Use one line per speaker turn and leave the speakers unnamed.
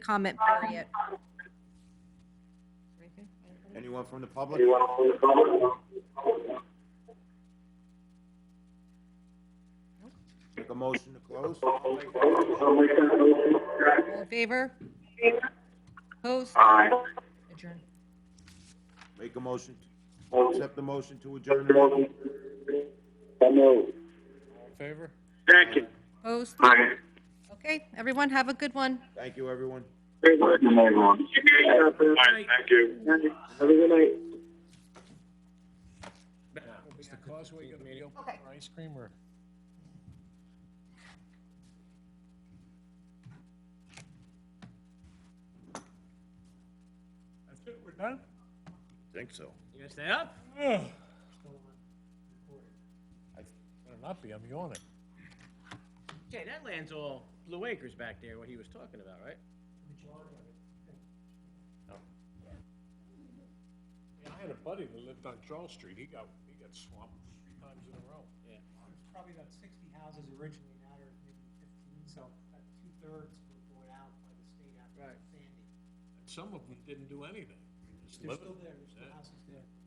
comment period.
Anyone from the public? Make a motion to close?
All in favor? Opposed? Adjourn.
Make a motion, accept the motion to adjourn.
All in favor?
Second.
Opposed?
Aye.
Okay, everyone, have a good one.
Thank you, everyone.
Good night, everyone. Thank you. Have a good night.
Is the causeway gonna be open for ice cream or? That's it, we're done?
Think so.
You gonna stay up?
Ugh. Better not be, I'm yawning.
Okay, that land's all Blue Acres back there, what he was talking about, right?
Yeah, I had a buddy that lived on Charles Street, he got, he got swamped three times in a row.
There's probably about sixty houses originally, now there are maybe fifteen, so about two-thirds were bought out by the state after
Right.
Sandy.
And some of them didn't do anything. Just
They're
living.
still there, there's still houses there.